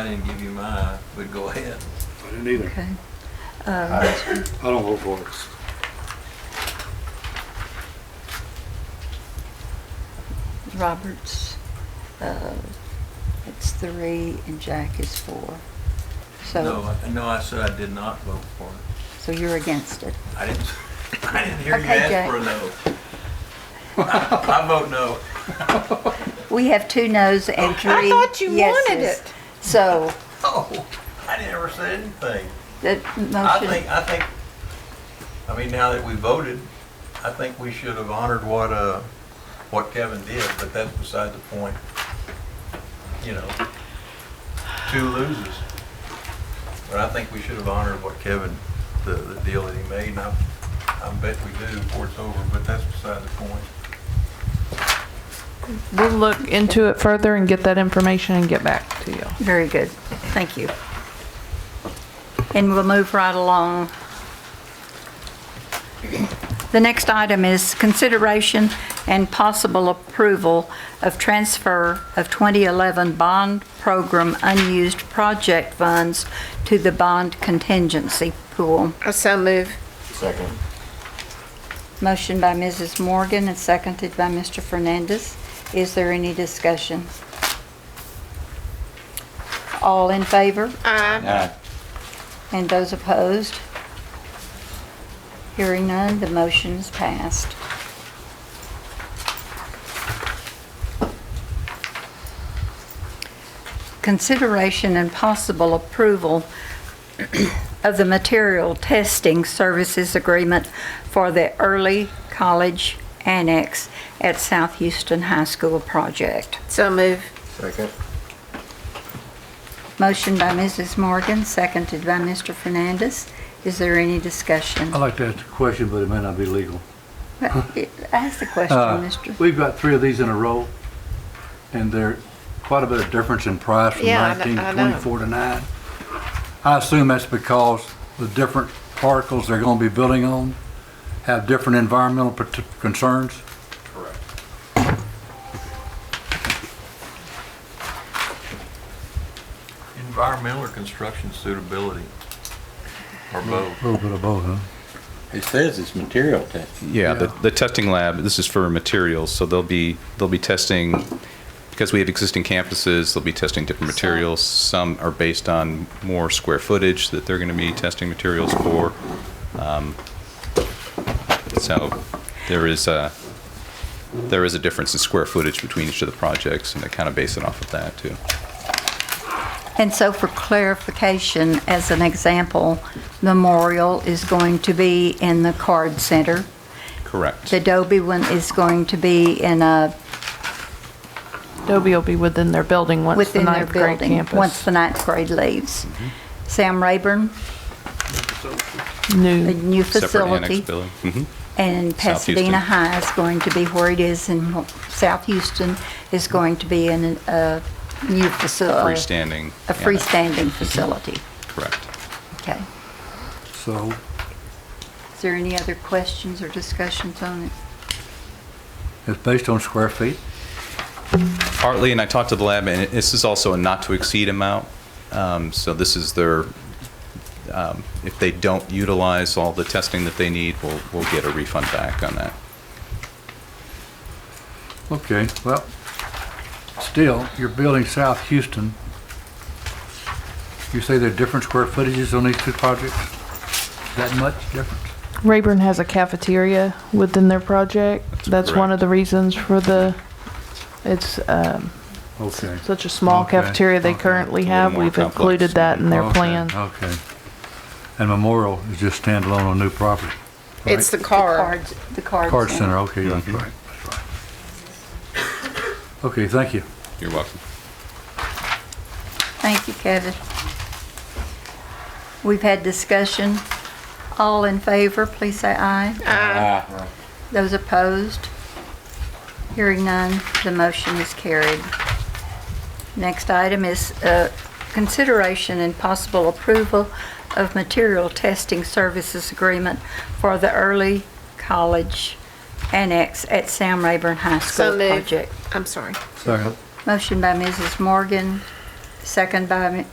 I didn't give you mine, but go ahead. I didn't either. Okay. Um, I I don't vote for it. Robert's, uh, it's three and Jack is four. So, No, I- no, I said I did not vote for it. so you're against it. I didn't, I didn't hear you Okay, ask Jack. for a no. I vote no. We have two noes and three yeses. thought you wanted it. So Oh, I never said anything. the I motion, think, I think, I mean, now that we voted, I think we should have honored what, uh, what Kevin did, but that's beside the point. You know, two loses. But I think we should have honored what Kevin, the, the deal that he made, and I, I bet we do before it's over, but that's beside the point. We'll look into it further and get that information and get back to you. very good. Thank you. And we'll move right along. The next item is consideration and possible approval of transfer of 2011 bond program unused project funds to the bond contingency pool. so move. Second. Motion by Mrs. Morgan and seconded by Mr. Fernandez. Is there any discussion? All in favor Aye. Aye. and those opposed? Hearing none, the motion is passed. Consideration and possible approval of the material testing services agreement for the early college annex at South Houston High School project. So move. Second. Motion by Mrs. Morgan, seconded by Mr. Fernandez. Is there any discussion? I'd like to ask a question, but it may not be legal. Ask the question, Uh, Mr. We've got three of these in a row, and they're quite a bit of difference in price from Yeah, I kn- 19 to I know. 24 to 9. I assume that's because the different particles they're going to be building on have different environmental prote- concerns. Correct. Environmental or construction suitability, or both? A little bit of both, huh? It says it's material testing. Yeah, the, Yeah. the testing lab, this is for materials, so they'll be, they'll be testing, because we have existing campuses, they'll be testing different materials. Some are based on more square footage that they're gonna be testing materials for. Um, So there is a, there is a difference in square footage between each of the projects, and they kind of base it off of that, too. And so for clarification, as an example, Memorial is going to be in the Card Center. Correct. The Dobie one is going to be in a, Dobie will be within their building once the within their ninth grade building, once campus. the ninth grade leaves. Mm-hmm. Sam Rayburn, a New, new Separate facility. annex building. Mhm. And South Houston. Pasadena High is going to be where it is, and South Houston is going to be in an- a new facility. Freestanding. Uh, A annex. freestanding facility. Correct. Okay. So Is there any other questions or discussions on it? it's based on square feet? partly, and I talked to the lab, and it- this is also a not-to-exceed amount. Um, So this is their, um, if they don't utilize all the testing that they need, we'll, we'll get a refund back on that. Okay, well, still, you're building South Houston. You say there are different square footages on these two projects? That much difference? Rayburn has a cafeteria within their project. That's one of correct. the reasons for the, it's um, Okay. such a small Okay, cafeteria they okay. currently It's a little have. more We've complex. included that in their Okay, plan. Okay. And Memorial is just standalone on new property? right? It's the car. Cards, the card. Card Center, okay, that's right, that's right. Okay, thank you. You're welcome. Thank you, Kevin. We've had discussion. All in favor, please say aye. Aye. Those opposed? Hearing none, the motion is carried. Next item is uh, consideration and possible approval of material testing services agreement for the early college annex at Sam Rayburn High So School move. project. I'm sorry. Second. Motion by Mrs. Morgan, Second by Mi-